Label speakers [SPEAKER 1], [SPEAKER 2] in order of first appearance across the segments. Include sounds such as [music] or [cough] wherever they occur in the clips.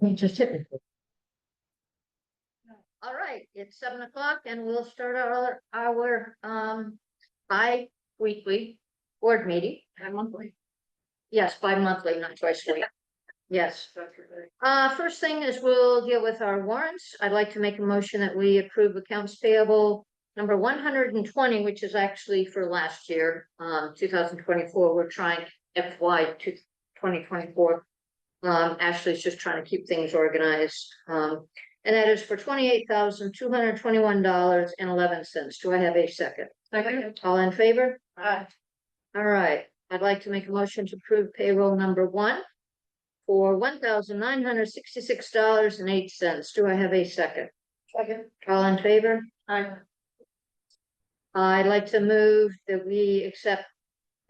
[SPEAKER 1] He just hit me. All right, it's seven o'clock and we'll start our, our, um, bi-weekly board meeting. Bi-monthly. Yes, bi-monthly, not twice a week. Yes. Uh, first thing is we'll deal with our warrants. I'd like to make a motion that we approve accounts payable number one hundred and twenty, which is actually for last year, um, two thousand twenty-four. We're trying FY two, twenty twenty-four. Um, Ashley's just trying to keep things organized, um, and that is for twenty-eight thousand, two hundred and twenty-one dollars and eleven cents. Do I have a second?
[SPEAKER 2] Second.
[SPEAKER 1] All in favor?
[SPEAKER 2] Aye.
[SPEAKER 1] All right, I'd like to make a motion to approve payroll number one for one thousand nine hundred sixty-six dollars and eight cents. Do I have a second?
[SPEAKER 2] Second.
[SPEAKER 1] All in favor?
[SPEAKER 2] Aye.
[SPEAKER 1] I'd like to move that we accept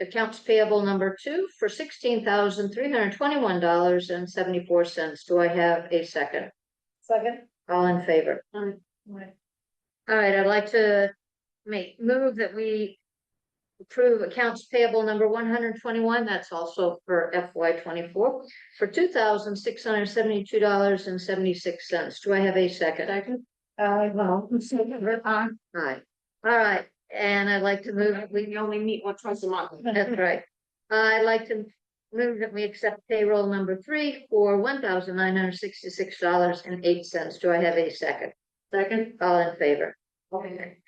[SPEAKER 1] accounts payable number two for sixteen thousand three hundred twenty-one dollars and seventy-four cents. Do I have a second?
[SPEAKER 2] Second.
[SPEAKER 1] All in favor?
[SPEAKER 2] Aye.
[SPEAKER 1] All right, I'd like to make, move that we approve accounts payable number one hundred twenty-one, that's also for FY twenty-four, for two thousand six hundred seventy-two dollars and seventy-six cents. Do I have a second?
[SPEAKER 2] Second. Uh, well, second, aye.
[SPEAKER 1] Aye. All right, and I'd like to move, that we,
[SPEAKER 2] only meet once, twice a month.
[SPEAKER 1] that's right. I'd like to move that we accept payroll number three for one thousand nine hundred sixty-six dollars and eight cents. Do I have a second?
[SPEAKER 2] Second.
[SPEAKER 1] All in favor?
[SPEAKER 2] Okay.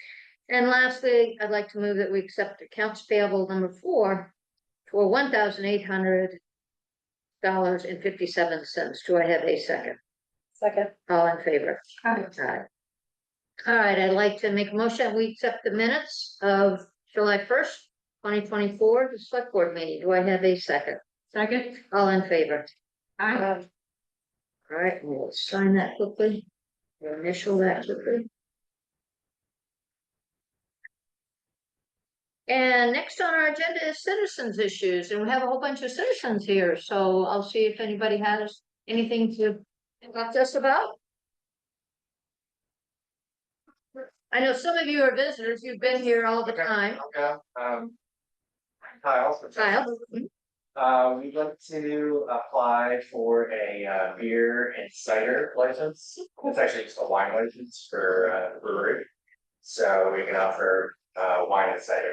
[SPEAKER 1] And lastly, I'd like to move that we accept accounts payable number four for one thousand eight hundred dollars and fifty-seven cents. Do I have a second?
[SPEAKER 2] Second.
[SPEAKER 1] All in favor?
[SPEAKER 2] Aye.
[SPEAKER 1] Aye. All right, I'd like to make a motion. We accept the minutes of July first, twenty twenty-four, the select board meeting. Do I have a second?
[SPEAKER 2] Second.
[SPEAKER 1] All in favor?
[SPEAKER 2] Aye.
[SPEAKER 1] All right, we'll sign that quickly. We'll Initial that quickly. And next on our agenda is citizens issues, and we have a whole bunch of citizens here, so I'll see if anybody has anything to talk to us about. I know some of you are visitors, you've been here all the time,
[SPEAKER 3] Okay, um. Kyle. for-
[SPEAKER 1] Kyle.
[SPEAKER 3] Uh, we'd like to apply for a uh, beer and cider license. It's actually just a wine license for uh, brewery. So we can offer uh, wine and cider.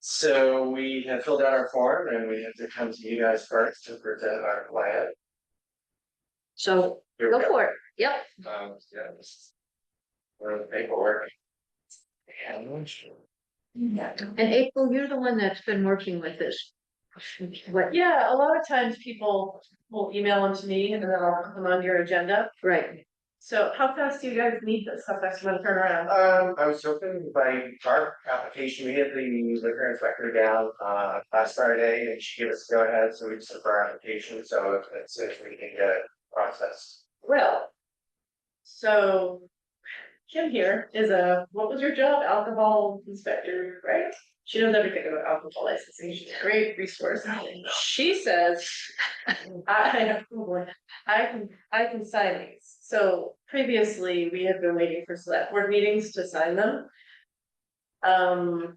[SPEAKER 3] So we have filled out our form and we have to come to you guys first to present our plan.
[SPEAKER 1] so
[SPEAKER 3] Here we
[SPEAKER 1] go for it, yep.
[SPEAKER 3] um, yeah, this is. Where the paperwork. And.
[SPEAKER 1] And April, you're the one that's been working with us. What,
[SPEAKER 2] Yeah, a lot of times people will email them to me and then I'll put them on your agenda.
[SPEAKER 1] right.
[SPEAKER 2] So how fast do you guys need this? How fast you want to turn around?
[SPEAKER 3] Um, I was hoping by our application, we had the liquor inspector down uh last Friday and she gave us go ahead, so we just took our application, so if- it's if we can get it processed.
[SPEAKER 2] Well. So. Kim here is a, what was your job? Alcohol inspector, right? She knows everything about alcohol licensing. She's a great resource. She says. [laughs] I, oh boy, I can, I can sign these. So previously, we have been waiting for select board meetings to sign them. Um.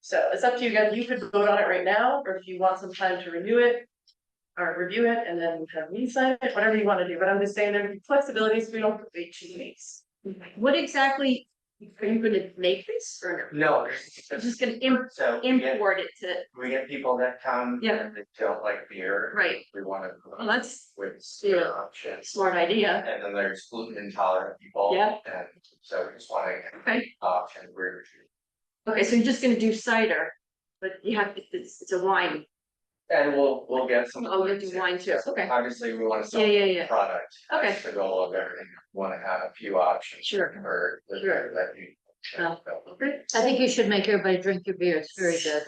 [SPEAKER 2] So it's up to you guys. You could vote on it right now, or if you want some time to renew it, or review it and then have me sign it, whatever you wanna do, but I'm just saying there are flexibilities, we don't wait two weeks.
[SPEAKER 4] What exactly, are you gonna make this or
[SPEAKER 3] No.
[SPEAKER 4] no? Just gonna im-
[SPEAKER 3] So we get,
[SPEAKER 4] import it to,
[SPEAKER 3] we get people that come.
[SPEAKER 4] Yeah.
[SPEAKER 3] They don't like beer.
[SPEAKER 4] right,
[SPEAKER 3] We want to.
[SPEAKER 4] well, that's
[SPEAKER 3] With
[SPEAKER 4] Yeah.
[SPEAKER 3] beer options.
[SPEAKER 4] smart idea,
[SPEAKER 3] And then there's gluten intolerant people.
[SPEAKER 4] Yeah.
[SPEAKER 3] And so we just want to
[SPEAKER 4] okay,
[SPEAKER 3] option where
[SPEAKER 4] okay, so you're just gonna do cider, but you have, it's, it's a wine,
[SPEAKER 3] And we'll, we'll get some.
[SPEAKER 4] oh, you're doing wine too, okay,
[SPEAKER 3] Obviously, we want to sell.
[SPEAKER 4] yeah, yeah, yeah,
[SPEAKER 3] product.
[SPEAKER 4] Okay.
[SPEAKER 3] That's The goal of everything, wanna have a few options.
[SPEAKER 4] Sure.
[SPEAKER 3] For the-
[SPEAKER 4] Sure.
[SPEAKER 3] that you.
[SPEAKER 4] Yeah.
[SPEAKER 2] Great.
[SPEAKER 1] I think you should make everybody drink your beer, it's very good.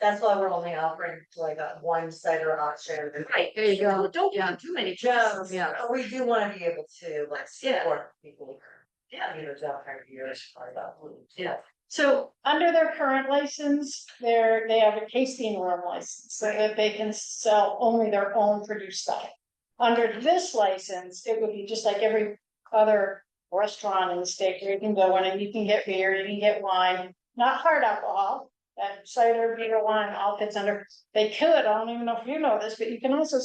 [SPEAKER 5] That's why we're only offering like a one cider option.
[SPEAKER 4] Right,
[SPEAKER 1] There you go.
[SPEAKER 4] Don't want too many
[SPEAKER 5] No,
[SPEAKER 4] jobs,
[SPEAKER 1] Yeah.
[SPEAKER 5] but we do wanna be able to like
[SPEAKER 4] Yeah.
[SPEAKER 5] support people.
[SPEAKER 4] Yeah.
[SPEAKER 5] You know, don't have years for that.
[SPEAKER 4] Yeah.
[SPEAKER 6] So under their current license, they're, they have a tasting room license, so that they can sell only their own produced stuff. Under this license, it would be just like every other restaurant in the state, where you can go in and you can get beer, you can get wine, not hard alcohol. And cider, beer, wine, all fits under, they could, I don't even know if you know this, but you can also